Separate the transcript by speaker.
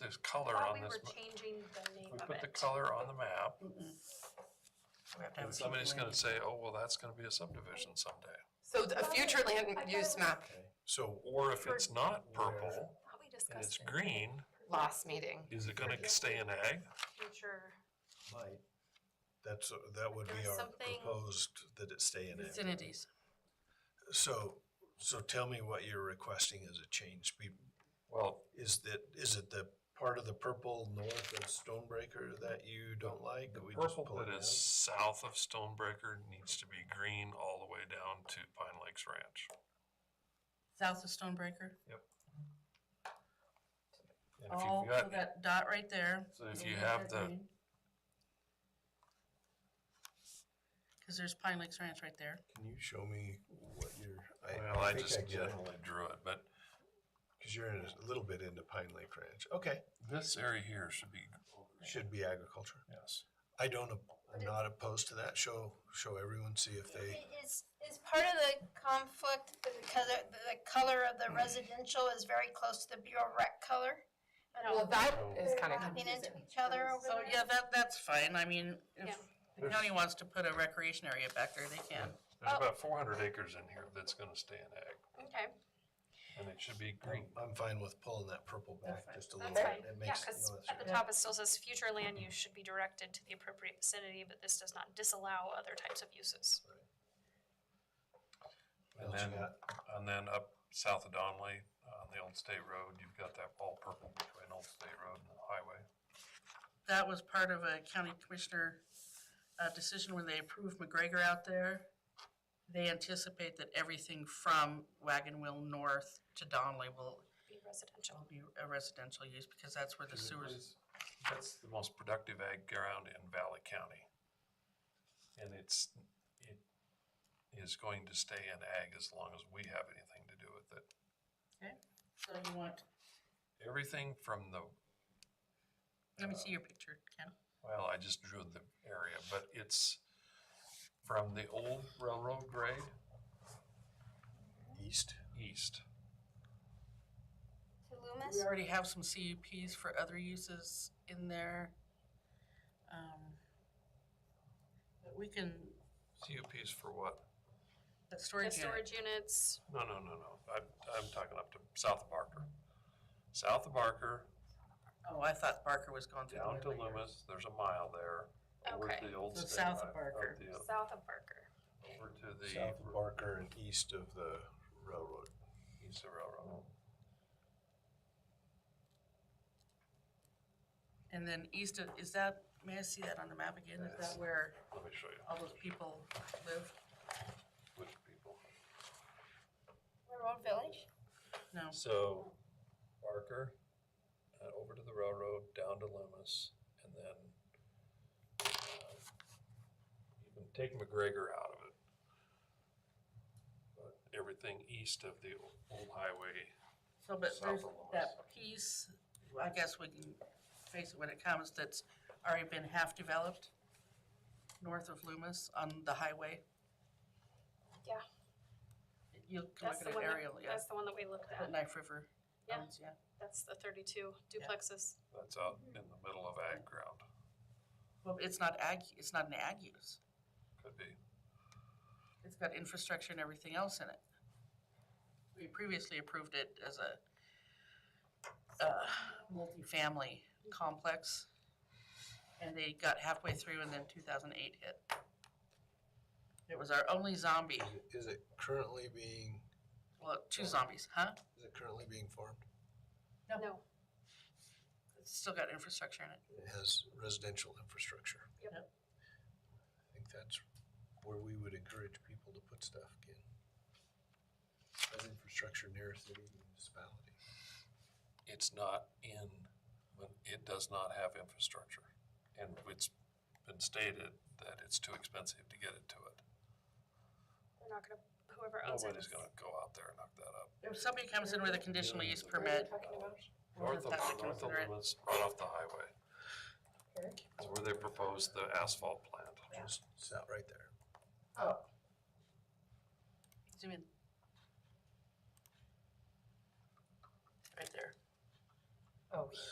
Speaker 1: there's color
Speaker 2: Thought
Speaker 1: on
Speaker 2: we
Speaker 1: this.
Speaker 2: were
Speaker 1: ma-
Speaker 2: changing the name
Speaker 1: We
Speaker 2: of
Speaker 1: put the
Speaker 2: it.
Speaker 1: color on the map,
Speaker 3: We have to have
Speaker 1: and
Speaker 3: a
Speaker 1: somebody's
Speaker 3: future
Speaker 1: gonna say, oh, well, that's gonna be a subdivision someday.
Speaker 4: So a future land use map,
Speaker 1: So, or if it's not purple
Speaker 2: Thought we
Speaker 1: and it's
Speaker 2: discussed it.
Speaker 1: green,
Speaker 4: last meeting.
Speaker 1: is it gonna stay in ag?
Speaker 2: Future,
Speaker 5: Might. That's, uh, that would be
Speaker 2: There's
Speaker 5: our
Speaker 2: something-
Speaker 5: proposed, that it stay in it.
Speaker 3: Vicinities.
Speaker 5: So, so tell me what you're requesting as a change. Be-
Speaker 1: Well,
Speaker 5: Is that, is it the part of the purple north of Stonebreaker that you don't like?
Speaker 1: the
Speaker 5: We just
Speaker 1: purple
Speaker 5: pull it
Speaker 1: that is
Speaker 5: out?
Speaker 1: south of Stonebreaker needs to be green all the way down to Pine Lakes Ranch.
Speaker 3: South of Stonebreaker.
Speaker 1: And if
Speaker 3: All
Speaker 2: Oh,
Speaker 1: you've
Speaker 3: so
Speaker 1: got,
Speaker 3: that dot right there.
Speaker 1: so if you have the,
Speaker 3: Cause there's Pine Lakes Ranch right there.
Speaker 5: Can you show me what you're?
Speaker 1: well, I
Speaker 5: think
Speaker 1: just
Speaker 5: generally-
Speaker 1: generally drew it, but
Speaker 5: Cause you're in a little bit into Pine Lake Ranch. Okay,
Speaker 1: this area here should be.
Speaker 5: should be agriculture.
Speaker 1: Yes.
Speaker 5: I don't, op- I'm not opposed to that. Show, show everyone, see if they,
Speaker 6: Is, is part of the conflict that the color, the color of the residential is very close to the Bureau rec color? I
Speaker 4: Well,
Speaker 6: don't
Speaker 4: that is kind of
Speaker 6: Running into each other over
Speaker 3: So,
Speaker 6: there.
Speaker 3: yeah, that, that's fine. I mean, if
Speaker 2: Yeah.
Speaker 3: the county wants to put a recreation area back there, they can.
Speaker 1: There's
Speaker 2: Oh.
Speaker 1: about four hundred acres in here that's gonna stay in ag,
Speaker 2: okay,
Speaker 1: and it should be
Speaker 2: Oh.
Speaker 1: green.
Speaker 5: Um, I'm fine with pulling that purple
Speaker 3: That's
Speaker 5: back
Speaker 3: fine.
Speaker 5: just a little
Speaker 2: that's
Speaker 5: bit.
Speaker 2: fine.
Speaker 5: It
Speaker 2: Yeah,
Speaker 5: makes it
Speaker 2: because
Speaker 5: less-
Speaker 2: at the top it still says future land use should be directed to the appropriate vicinity, but this does not disallow other types of uses.
Speaker 5: what
Speaker 1: And
Speaker 5: else you
Speaker 1: then,
Speaker 5: got?
Speaker 1: and then up south of Donley, on the Old State Road, you've got that all purple between Old State Road and the highway.
Speaker 3: That was part of a county commissioner, uh, decision when they approved McGregor out there. They anticipate that everything from Wagon Wheel North to Donley will
Speaker 2: Be residential.
Speaker 3: will be a residential use because that's where the sewers.
Speaker 1: That's the most productive ag ground in Valley County. And it's, it is going to stay in ag as long as we have anything to do with it.
Speaker 3: So you want,
Speaker 1: Everything from the,
Speaker 3: let me see your picture, Ken.
Speaker 1: well, I just drew the area, but it's from the old railroad grade
Speaker 5: East?
Speaker 1: east.
Speaker 6: To Loomis?
Speaker 3: We already have some CUPs for other uses in there. Um, But we can,
Speaker 1: CUPs for what?
Speaker 3: that
Speaker 2: The
Speaker 3: storage unit,
Speaker 2: storage units,
Speaker 1: No, no, no, no. I'm, I'm talking up to south of Barker. South of Barker,
Speaker 3: oh, I thought Barker was going through.
Speaker 1: down to
Speaker 3: the later.
Speaker 1: Loomis, there's a mile there. Over to
Speaker 2: Okay.
Speaker 1: the old
Speaker 3: So
Speaker 1: state.
Speaker 3: south of
Speaker 1: line, up
Speaker 3: Barker.
Speaker 1: the-
Speaker 2: south of Barker.
Speaker 1: Over to
Speaker 5: South of
Speaker 1: the
Speaker 5: Barker and east of the railroad.
Speaker 1: east of railroad.
Speaker 3: And then east of, is that, may I see that on the map again? Is that where
Speaker 1: Let me show you
Speaker 3: all those people live?
Speaker 1: which people.
Speaker 6: Railroad Village?
Speaker 3: No,
Speaker 1: So Barker, uh, over to the railroad, down to Loomis, and then uh, you can take McGregor out of it. But everything east of the o- old highway
Speaker 3: so but
Speaker 1: South
Speaker 3: there's
Speaker 1: of Loomis.
Speaker 3: that piece, I guess we can face it when it comes, that's already been half developed north of Loomis on the highway.
Speaker 2: Yeah.
Speaker 3: You can
Speaker 2: That's the
Speaker 3: look at an
Speaker 2: one, that-
Speaker 3: aerial, yeah,
Speaker 2: that's the one that we looked
Speaker 3: at
Speaker 2: at.
Speaker 3: Knife River.
Speaker 2: Yeah.
Speaker 3: owns, Yeah.
Speaker 2: That's the thirty-two duplexes.
Speaker 1: that's out in the middle of ag ground,
Speaker 3: Well, it's not ag, it's not an ag use.
Speaker 1: could be.
Speaker 3: It's got infrastructure and everything else in it. We previously approved it as a uh, multifamily complex. And they got halfway through and then two thousand eight hit. It was our only zombie,
Speaker 5: Is it- Is it currently being,
Speaker 3: well, two zombies, huh?
Speaker 5: is it currently being farmed?
Speaker 3: Yeah.
Speaker 2: No,
Speaker 3: It's still got infrastructure in it.
Speaker 5: It has residential infrastructure.
Speaker 2: Yep.
Speaker 3: Yep.
Speaker 5: I think that's where we would encourage people to put stuff in. Has infrastructure near a city municipality.
Speaker 1: It's not in, but it does not have infrastructure. And it's been stated that it's too expensive to get it to it.
Speaker 2: they're not gonna, whoever owns it.
Speaker 1: Nobody's
Speaker 2: is-
Speaker 1: gonna go out there and knock that up.
Speaker 3: If somebody comes in with a conditional use permit, Well,
Speaker 1: North of,
Speaker 3: that's a
Speaker 1: north of
Speaker 3: considerate-
Speaker 1: Loomis, right off the highway. That's where they proposed the asphalt plant.
Speaker 5: Just, it's out right there.
Speaker 3: zoom in.
Speaker 4: Oh,
Speaker 3: Right there.